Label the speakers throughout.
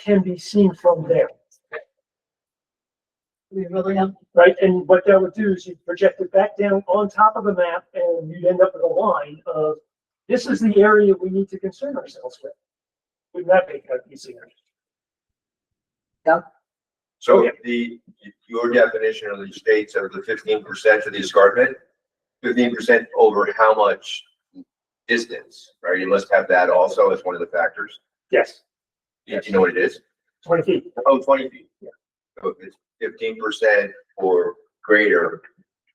Speaker 1: can be seen from there,
Speaker 2: We really have,
Speaker 1: right? And what that would do is you project it back down on top of the map and you'd end up with a line of, this is the area we need to concern ourselves with. Wouldn't that make that easier?
Speaker 3: So the, your definition of the states of the fifteen percent of the escarpment, fifteen percent over how much distance, right? You must have that also as one of the factors.
Speaker 1: Yes,
Speaker 3: Do you know what it is?
Speaker 1: twenty feet.
Speaker 3: Oh, twenty feet. So if it's fifteen percent or greater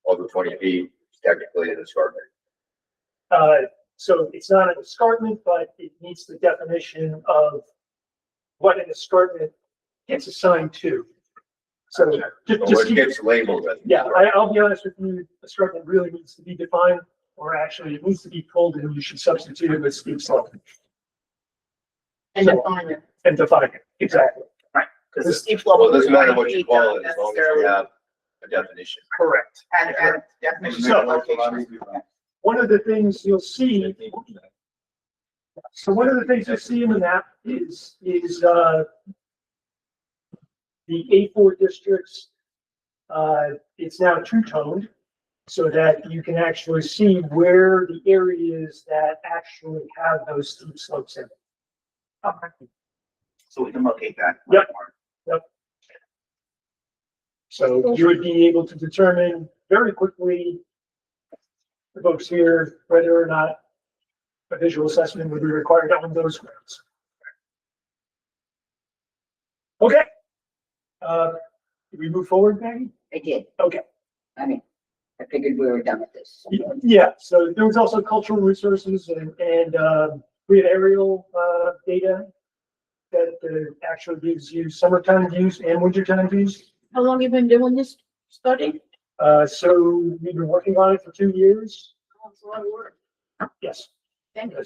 Speaker 3: over twenty feet, it's technically an escarpment.
Speaker 1: Uh, so it's not an escarpment, but it meets the definition of what an escarpment gets assigned to. So ju-
Speaker 3: But
Speaker 1: just
Speaker 3: what
Speaker 1: keep-
Speaker 3: gets labeled as. an
Speaker 1: Yeah,
Speaker 3: escarpment.
Speaker 1: I, I'll be honest with you, escarpment really needs to be defined, or actually it needs to be pulled and you should substitute it with steep slope
Speaker 2: and define it.
Speaker 1: and define it, exactly.
Speaker 4: Because the steep level.
Speaker 3: Well, it doesn't matter what you call it, as long as you have a definition.
Speaker 1: Correct.
Speaker 4: Add, add definition
Speaker 1: So-
Speaker 4: of location.
Speaker 1: One of the things you'll see,
Speaker 3: 15%.
Speaker 1: so one of the things you'll see in the map is, is, uh, the A four districts, uh, it's now two-toned so that you can actually see where the areas that actually have those steep slopes in. it.
Speaker 4: So we can locate that.
Speaker 1: Yep. So you would be able to determine very quickly the folks here, whether or not a visual assessment would be required on those grounds. Okay. Uh, did we move forward, Maggie?
Speaker 5: I did.
Speaker 1: Okay.
Speaker 5: I mean, I figured we were done with this.
Speaker 1: Yeah, so there was also cultural resources and, and, uh, we had aerial, uh, data that, uh, actually gives you summertime views and wintertime views.
Speaker 2: How long you been doing this study?
Speaker 1: Uh, so we've been working on it for two years.
Speaker 2: Oh, It's a lot of work.
Speaker 1: Yes.
Speaker 2: Thank you.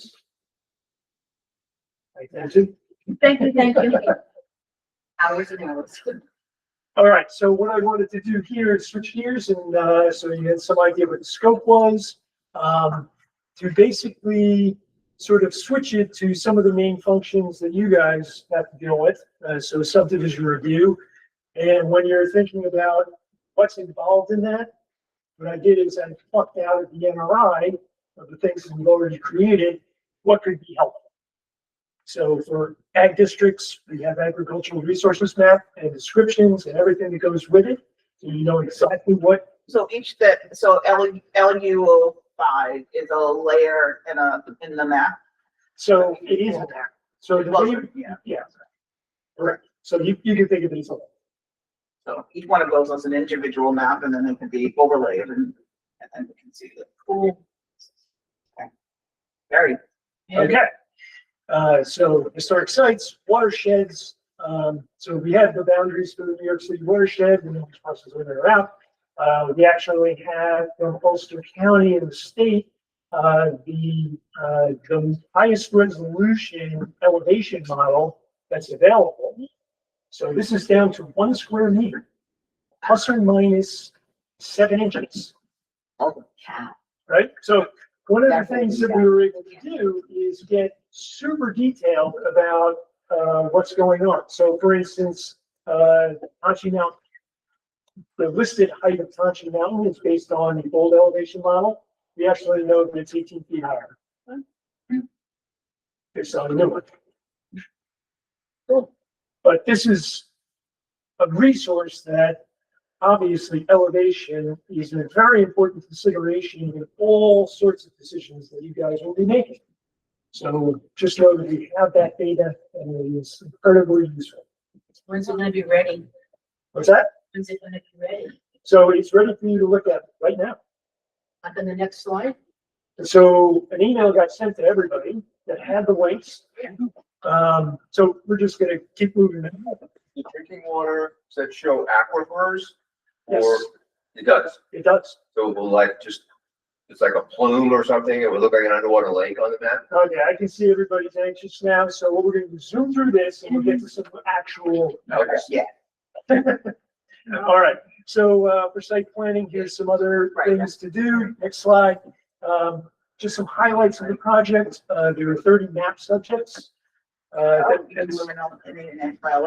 Speaker 1: Right, that's it.
Speaker 2: Thank you, thank you.
Speaker 5: Hours and hours.
Speaker 1: All right, so what I wanted to do here is switch gears and, uh, so you had some idea what the scope was. Um, to basically sort of switch it to some of the main functions that you guys have to deal with. Uh, so subdivision review. And when you're thinking about what's involved in that, what I did is I plucked out of the NRI of the things that we've already created, what could be helpful. So for ag districts, we have agricultural resources map and descriptions and everything that goes with it. So you know exactly what,
Speaker 4: So each that, so L, LU five is a layer in a, in the map.
Speaker 1: so it is a map. So the way, you-
Speaker 4: Yeah,
Speaker 1: yeah. Correct. So you, you can think of it as a,
Speaker 4: so each one of those is an individual map and then it can be overlaid and, and then we can see the. Cool. Okay. Very.
Speaker 1: okay. Uh, so historic sites, watersheds, um, so we have the boundaries for the New York City watershed, we know which parcels are in or out. Uh, we actually have from Ulster County in the state, uh, the, uh, the highest resolution elevation model that's available. So this is down to one square meter, plus or minus seven inches
Speaker 5: Oh, cow.
Speaker 1: right? So one of the
Speaker 5: That's what
Speaker 1: things
Speaker 5: we
Speaker 1: that we were able to do is get super detailed about uh, what's going on. So for instance, uh, Hanshi Mountain. The listed height of Hanshi Mountain is based on the old elevation model. We actually know that it's eighteen feet higher. It's not a new one. But this is a resource that obviously elevation is a very important consideration in all sorts of decisions that you guys will be making. So just know that we have that data and it is incredibly useful.
Speaker 2: When's it gonna be ready?
Speaker 1: What's that?
Speaker 2: When's it gonna be ready?
Speaker 1: So it's ready for you to look at right now.
Speaker 2: Up in the next slide?
Speaker 1: So an email got sent to everybody that had the links. Um, so we're just gonna keep moving. it.
Speaker 3: The drinking water, does that show aquifers? Or,
Speaker 1: Yes,
Speaker 3: it does,
Speaker 1: it does.
Speaker 3: so it will like just, it's like a plume or something, it would look like an underwater lake on the map.
Speaker 1: Okay, Oh, I can see everybody's anxious now. So what we're gonna do is zoom through this and we'll get to some actual
Speaker 3: Okay.
Speaker 4: Yeah.
Speaker 1: All right, so uh, for site planning, here's some other
Speaker 4: Right.
Speaker 1: things to do. Next slide. Um, Just some highlights of the project. Uh, There are 30 map subjects. Uh, Uh, that-
Speaker 4: Oh, you can do
Speaker 1: that's-
Speaker 4: them in all- in the- in the- well,